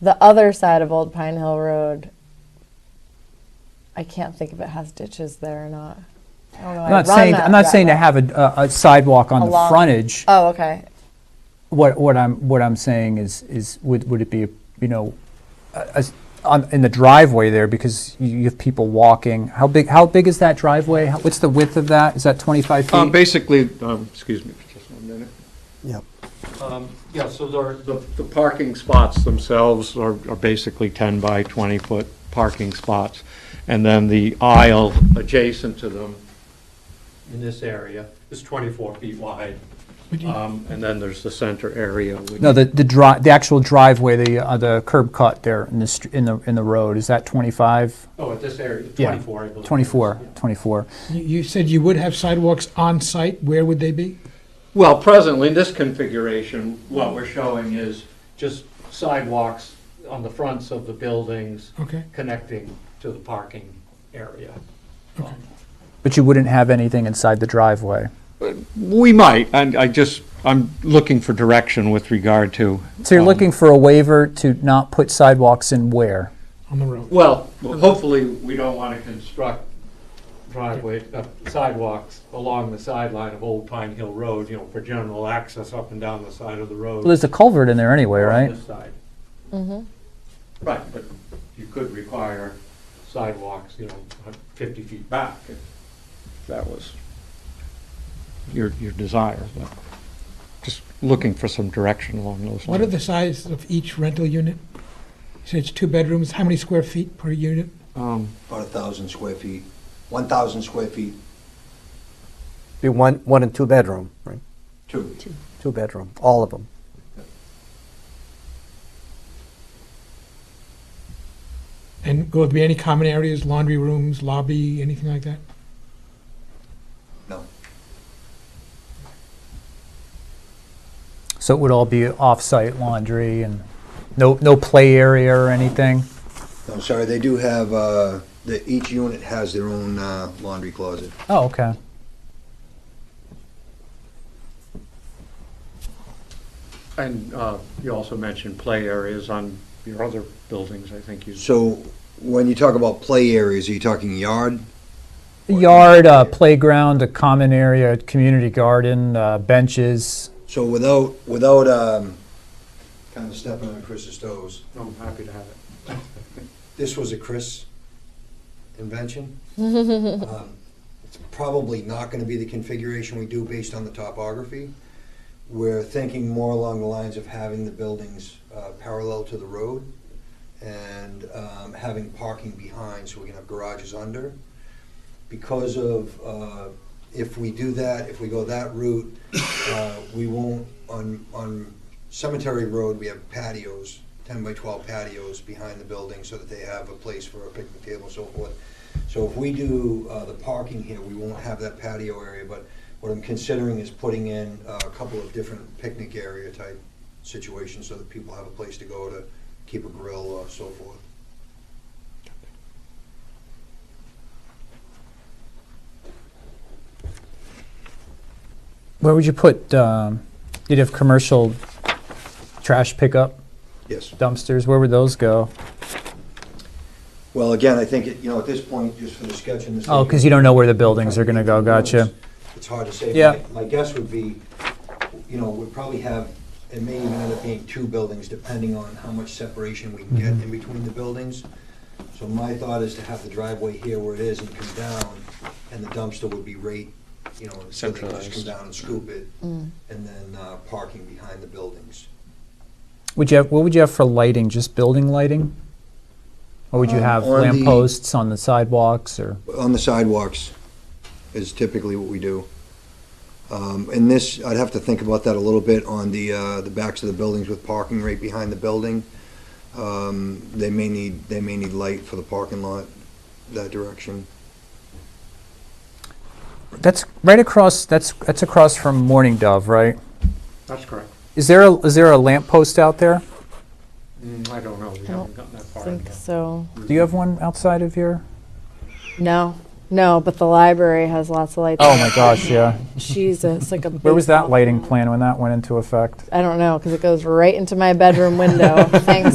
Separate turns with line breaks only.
The other side of Old Pine Hill Road, I can't think if it has ditches there or not. I don't know, I
I'm not
run
saying,
that-
I'm not
that
saying to
route.
have a- a a sidewalk on the
Along-
frontage.
Oh, okay.
What, what I'm, what I'm saying is, is would, would it be, you know, a- a s- on, in the driveway there, because you you have people walking, how big, how big is that driveway? How- What's the width of that? Is that 25
Um,
feet?
Basically, um, excuse me for just one minute.
Yep.
Um, Yeah, so there are- the the parking spots themselves are are basically 10 by 20-foot parking spots. And then the aisle adjacent to them in this area is 24 feet wide. Um, And then there's the center area. which-
No, the, the dri, the actual driveway, the, uh, the curb cut there in the, str- in the, in the road, is that 25?
Oh, at this area,
Yeah,
24, I believe.
24,
Yeah.
24.
You- You said you would have sidewalks on site, where would they be?
Well, presently, in this configuration, what we're showing is just sidewalks on the fronts of the buildings
Okay,
connecting to the parking area.
okay.
But you wouldn't have anything inside the driveway?
We might, and I just, I'm looking for direction with regard to.
So you're
um,
looking for a waiver to not put sidewalks in where?
On the road.
Well, hopefully, we don't want to construct driveway, uh, sidewalks along the sideline of Old Pine Hill Road, you know, for general access up and down the side of the road.
Well, there's a culvert in there anyway,
on
right?
this side. Mm-hmm. Right, but you could require sidewalks, you know, fifty feet back. if That was your, your desire, but just looking for some direction along those lines.
What are the size of each rental unit? You said it's two bedrooms, how many square feet per unit?
Um,
About a thousand square feet, one thousand square feet,
Be one, one and two bedroom, right?
two.
Two bedroom, all of them.
And will there be any common areas, laundry rooms, lobby, anything like that?
No,
So it would all be off-site laundry and no, no play area or anything?
no, sorry, they do have, uh, the, each unit has their own, uh, laundry closet.
Oh, okay.
And uh, you also mentioned play areas on your other buildings, I think you.
So when you talk about play areas, are you talking yard?
Yard, uh, playground, a common area, a community garden, uh, benches.
So without, without, um, kind of stepping on Chris's toes,
I'm happy to have it.
this was a Chris invention. Um, It's probably not gonna be the configuration we do based on the topography. We're thinking more along the lines of having the buildings uh, parallel to the road and um, having parking behind, so we can have garages under. Because of, uh, if we do that, if we go that route, uh, we won't, on, on Cemetery Road, we have patios, 10 by 12 patios behind the building so that they have a place for a picnic table and so forth. So if we do uh, the parking here, we won't have that patio area, but what I'm considering is putting in uh, a couple of different picnic area type situations so that people have a place to go to keep a grill or so forth.
Where would you put, um, you'd have commercial trash pickup
Yes.
dumpsters, where would those go?
Well, again, I think, it- you know, at this point, just for the sketch and the.
Oh, because you don't know where the buildings are gonna go, gotcha.
It's hard to say.
Yeah.
My guess would be, you know, we'd probably have, it may even end up being two buildings, depending on how much separation we can get
Mm-hmm.
in between the buildings. So my thought is to have the driveway here where it is and come down, and the dumpster would be right, you know, so they can just come
Centralized.
down and scoop it, and then uh, parking behind the buildings.
Would you have, what would you have for lighting, just building lighting? Or would you
Um,
have
on the-
lamp posts on the sidewalks or?
on the sidewalks is typically what we do. Um, And this, I'd have to think about that a little bit on the, uh, the backs of the buildings with parking right behind the building. Um, They may need, they may need light for the parking lot that direction.
That's right across, that's, that's across from Morning Dove, right?
That's correct.
Is there, a- is there a lamp post out there?
Mm, I don't know, we haven't gotten that
I
far.
think
yet.
so.
Do you have one outside of your?
No, no, but the library has lots of lights.
Oh my gosh, yeah.
Jesus, like a.
Where was that
baseball
lighting
bat.
plan when that went into effect?
I don't know, because it goes right into my bedroom window. Thanks,